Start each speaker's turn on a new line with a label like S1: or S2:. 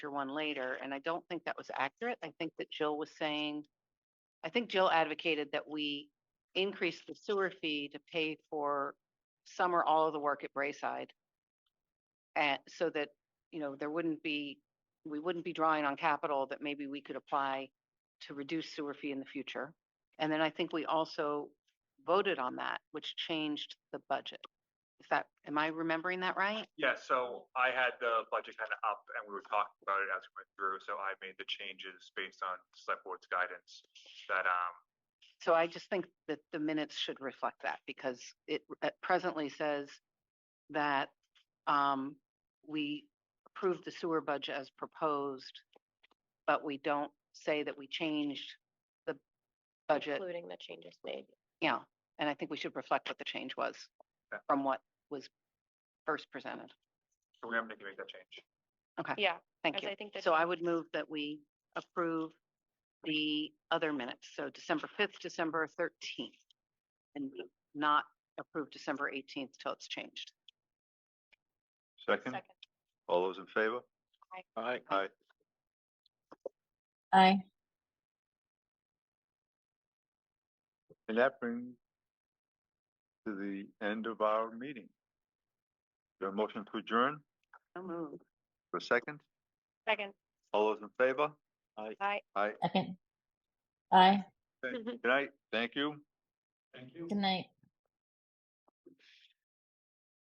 S1: chapter one later, and I don't think that was accurate. I think that Jill was saying, I think Jill advocated that we increase the sewer fee to pay for some or all of the work at Brayside. And so that, you know, there wouldn't be, we wouldn't be drawing on capital that maybe we could apply to reduce sewer fee in the future. And then I think we also voted on that, which changed the budget. Is that, am I remembering that right?
S2: Yeah, so I had the budget kind of up and we were talking about it as we went through, so I made the changes based on select board's guidance that, um,
S1: So I just think that the minutes should reflect that because it uh, presently says that um, we approved the sewer budget as proposed, but we don't say that we changed the budget,
S3: Including the changes made.
S1: yeah. And I think we should reflect what the change was
S2: Yeah.
S1: from what was first presented.
S2: so we're having to make that change.
S3: Yeah,
S1: Thank
S3: As
S1: you.
S3: I think the
S1: So I
S3: change-
S1: would move that we approve the other minutes, so December fifth, December thirteenth. And not approve December eighteenth till it's changed.
S4: Second,
S3: second.
S4: all those in favor?
S3: Aye.
S4: Aye. Aye.
S5: aye.
S4: And that brings to the end of our meeting. Your motion to adjourn
S1: So move.
S4: for a second?
S3: Second,
S4: All those in favor?
S3: aye.
S4: Aye.
S5: Second. Aye.
S4: Good night. Thank you.
S2: Thank you.
S5: Good night.